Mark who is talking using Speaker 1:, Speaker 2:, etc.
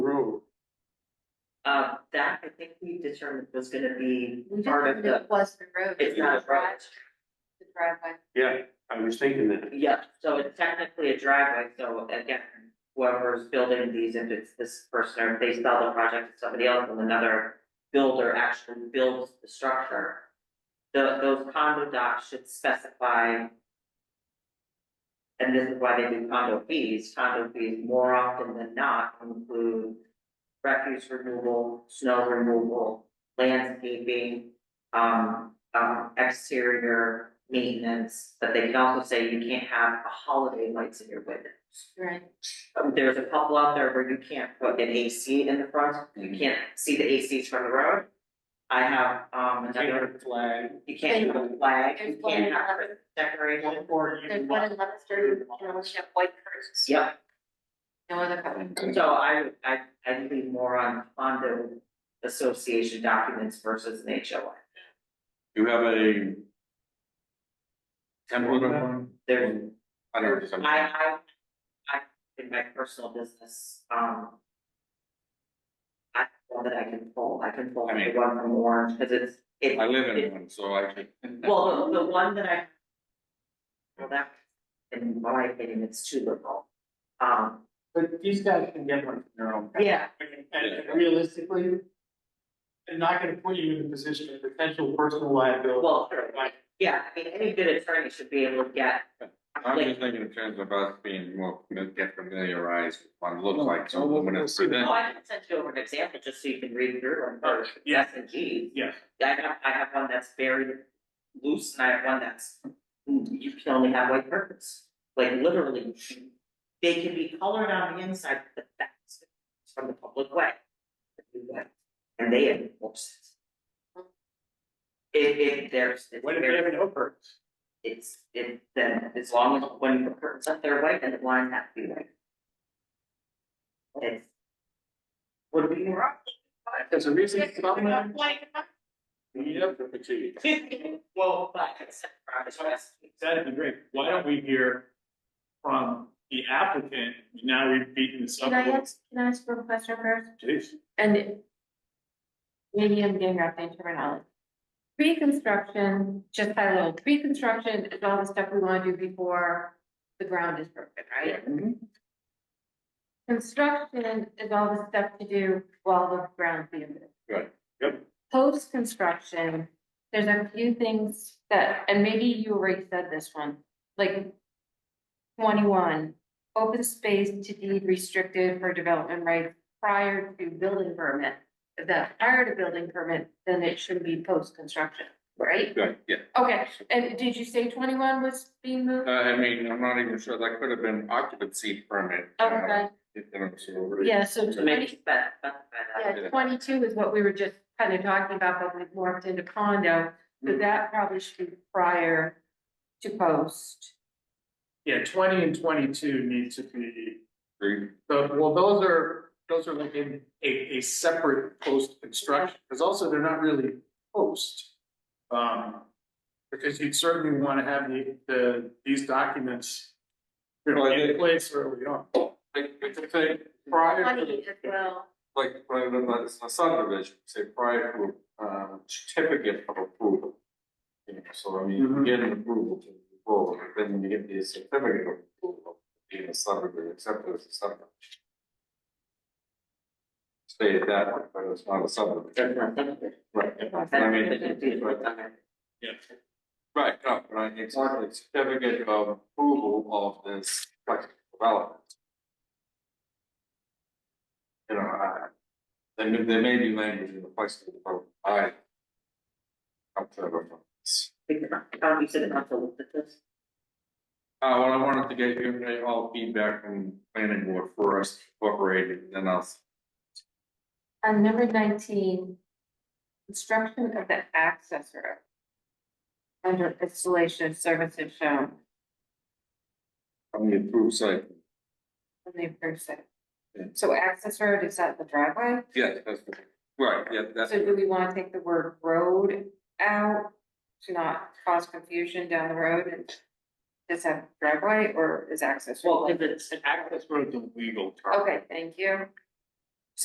Speaker 1: Um, I think we determined was gonna be
Speaker 2: We just
Speaker 1: part of
Speaker 2: wanted
Speaker 1: the,
Speaker 2: to Western Road.
Speaker 1: it's
Speaker 2: the
Speaker 1: not a road.
Speaker 2: garage, The driveway.
Speaker 3: Yeah, I was thinking that.
Speaker 1: Yeah, so it's technically a driveway, so again, whoever's building these, if it's this person, or if they sell the project to somebody else and another builder actually builds the structure. The, those condo docs should specify. And this is why they do condo fees, condo fees more often than not include refuse removal, snow removal, landscaping, um, um, exterior maintenance, but they can also say you can't have a holiday lights in your windows.
Speaker 2: Right.
Speaker 1: Um, There's a couple out there where you can't put an AC in the front,
Speaker 3: Mm-hmm.
Speaker 1: you can't see the ACs from the road. I have, um, another,
Speaker 3: Flag.
Speaker 1: you can't have a flag, you
Speaker 2: There's one in
Speaker 1: can't have
Speaker 2: Lebanon.
Speaker 1: decoration.
Speaker 3: Or you
Speaker 2: There's one
Speaker 3: want-
Speaker 2: in Lemonster, you know, she have white curtains.
Speaker 1: Yep,
Speaker 2: No other color.
Speaker 1: so I, I, I lean more on condo association documents versus an HOA.
Speaker 3: You have a. Template of one?
Speaker 1: There's
Speaker 3: I don't know, if it's something-
Speaker 1: I, I, I, in my personal business, um. I don't know that I can pull, I can pull
Speaker 3: I mean-
Speaker 1: the one from Orange, cause it's, it,
Speaker 3: I live in one, so I can.
Speaker 1: well, the, the one that I. Well, that, in my opinion, it's too liberal, um,
Speaker 4: But these guys can get one from their own.
Speaker 1: yeah,
Speaker 4: And realistically, they're not gonna put you in the position of potential personal liability.
Speaker 1: well, sure, like, yeah, I mean, any good attorney should be able to get.
Speaker 5: I'm
Speaker 1: like,
Speaker 5: just thinking in terms of us being more, get familiarized with what it looks like, so
Speaker 4: No, we'll-
Speaker 5: when
Speaker 4: we'll
Speaker 5: it's
Speaker 4: see.
Speaker 1: Oh,
Speaker 5: presented.
Speaker 1: I can send you over an example, just so you can read through and, or,
Speaker 3: Uh, Yeah.
Speaker 1: yes, and Gs.
Speaker 3: Yes.
Speaker 1: I have, I have one that's very loose and I have one that's, you can only have white curtains. Like literally, they can be colored on the inside, but that's from the public way. And they enforce it. If, if there's, it's
Speaker 4: What if they have
Speaker 1: very,
Speaker 4: no perks?
Speaker 1: it's, it, then as long as when the curtains up, they're white and the blinds have to be white. It's. Would be wrong.
Speaker 4: There's a reason it's not mine.
Speaker 1: Well,
Speaker 3: Yep, the fatigue.
Speaker 1: but it's.
Speaker 6: That'd be great. Why don't we hear from the applicant? Now we've beaten this up.
Speaker 2: Can I ask, can I ask one question first?
Speaker 6: Jeez.
Speaker 2: And it- maybe I'm getting wrapped in terminology. Pre-construction, just by little, pre-construction is all the stuff we want to do before the ground is broken, right? Construction is all the stuff to do while the ground's being built.
Speaker 5: Right,
Speaker 3: yep.
Speaker 2: Post-construction, there's a few things that, and maybe you already said this one, like twenty-one, open space to deed restricted for development rights prior to building permit. If that's prior to building permit, then it should be post-construction, right?
Speaker 5: Good, yeah,
Speaker 2: Okay, and did you say twenty-one was being
Speaker 5: uh,
Speaker 2: moved?
Speaker 5: I mean, I'm not even sure, that could have been occupancy permit. you know,
Speaker 2: Okay,
Speaker 5: if they don't see over it.
Speaker 2: yeah, so
Speaker 1: So maybe
Speaker 2: twenty,
Speaker 1: spec- specify that.
Speaker 2: yeah, twenty-two is what we were just kind of talking about, but we morphed into condo. So that probably should be prior to post.
Speaker 4: Yeah, twenty and twenty-two need to be,
Speaker 5: Three,
Speaker 4: but, well, those are, those are like in a, a separate post-construction, because also they're not really post. Um, because you'd certainly wanna have the, the, these documents you know,
Speaker 5: Well, I
Speaker 4: in
Speaker 5: think-
Speaker 4: place early on.
Speaker 5: Like, it's a thing,
Speaker 4: Prior to
Speaker 2: Twenty as well.
Speaker 5: like, when it's a subdivision, say prior to, um, certificate of approval. You know, so I mean, you
Speaker 4: Mhm.
Speaker 5: get an approval to move forward, but then you get the certificate of approval, being a subdivision, accepted as a subdivision. Stated that, way, but it's not a subdivision. Right, I mean, right, no, but I mean, it's not like certificate of approval of this flexible development. You know, I, there may, there may be language in the flexible development, I. Come to that from this.
Speaker 1: Um, you said not to look at this.
Speaker 5: Uh, well, I wanted to get your, all feedback from planning board first, incorporated, then I'll.
Speaker 2: On number nineteen, construction of the access road. Under installation of services shown
Speaker 5: On the approved site,
Speaker 2: on the approved site.
Speaker 5: Yeah.
Speaker 2: So access road is at the driveway,
Speaker 5: yes, that's, right, yeah, that's,
Speaker 2: so do we wanna take the word road out? To not cause confusion down the road and just have driveway or is access? road
Speaker 1: Well, if
Speaker 2: like-
Speaker 1: it's,
Speaker 3: Access road's a legal term.
Speaker 2: Okay, thank you,